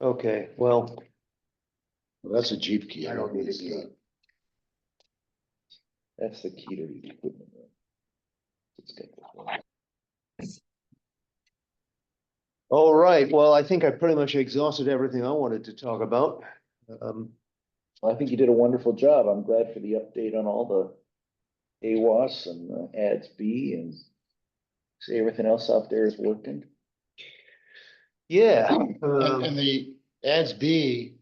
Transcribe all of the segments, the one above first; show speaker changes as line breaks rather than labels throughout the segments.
Okay, well,
Well, That's a Jeep key.
I don't need a
It's not-
That's the key to the equipment. room. It's got the-
all right, well, I think I pretty much exhausted everything I wanted to talk about. Um,
Well, I think you did a wonderful job. I'm glad for the update on all the AWAS and the ads B and see everything else out there is working.
yeah,
And,
um,
and the ads B,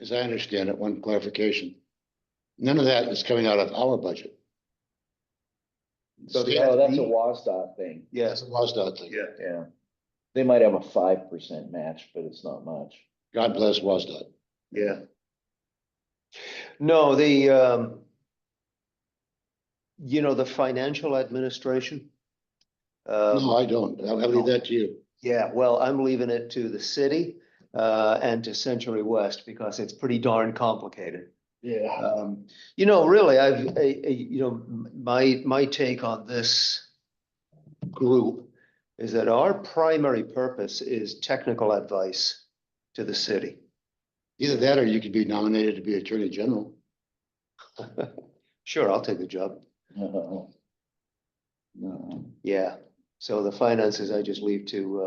as I understand it, one clarification, none of that is coming out of our budget.
So the
State-
ads
Oh, that's a
B?
WASDOT thing,
yes,
That's a WASDOT thing.
Yeah.
yeah. They might have a five percent match, but it's not much.
God bless WASDOT.
yeah. No, the, um, you know, the financial administration.
No,
Um,
I don't. I'll I'll leave that to you.
yeah, well, I'm leaving it to the city, uh, and to Century West because it's pretty darn complicated.
Yeah.
Um, you know, really, I've, I- I- you know, m- my, my take on this group is that our primary purpose is technical advice to the city.
Either that or you could be nominated to be Attorney General.
Sure, I'll take the job.
No. No.
Yeah. So the finances I just leave to,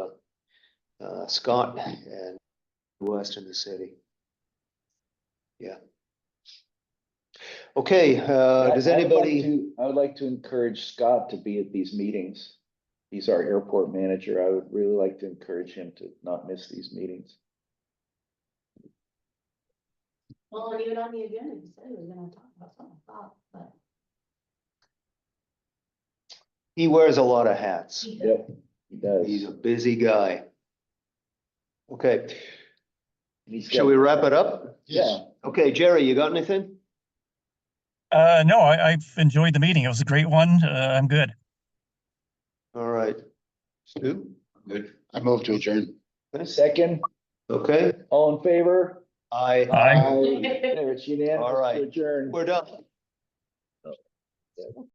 uh, uh, Scott and West in the city. Yeah. Okay, uh, does
I- I'd like
anybody,
to- I would like to encourage Scott to be at these meetings. He's our airport manager. I would really like to encourage him to not miss these meetings.
Well, even on the agenda, you said we were gonna talk about something, about, but.
he wears a lot of hats.
Yep, he does.
He's a busy guy. Okay,
He's
shall
got-
we wrap it up?
Yes.
Yeah,
Okay, Jerry, you got anything?
Uh, no, I, I've enjoyed the meeting. It was a great one. Uh, I'm good.
All right. Stu?
Good. I move to adjourn.
second,
Okay,
all in favor?
I,
Bye.
There, it's unanimous
All right.
to adjourn.
we're done.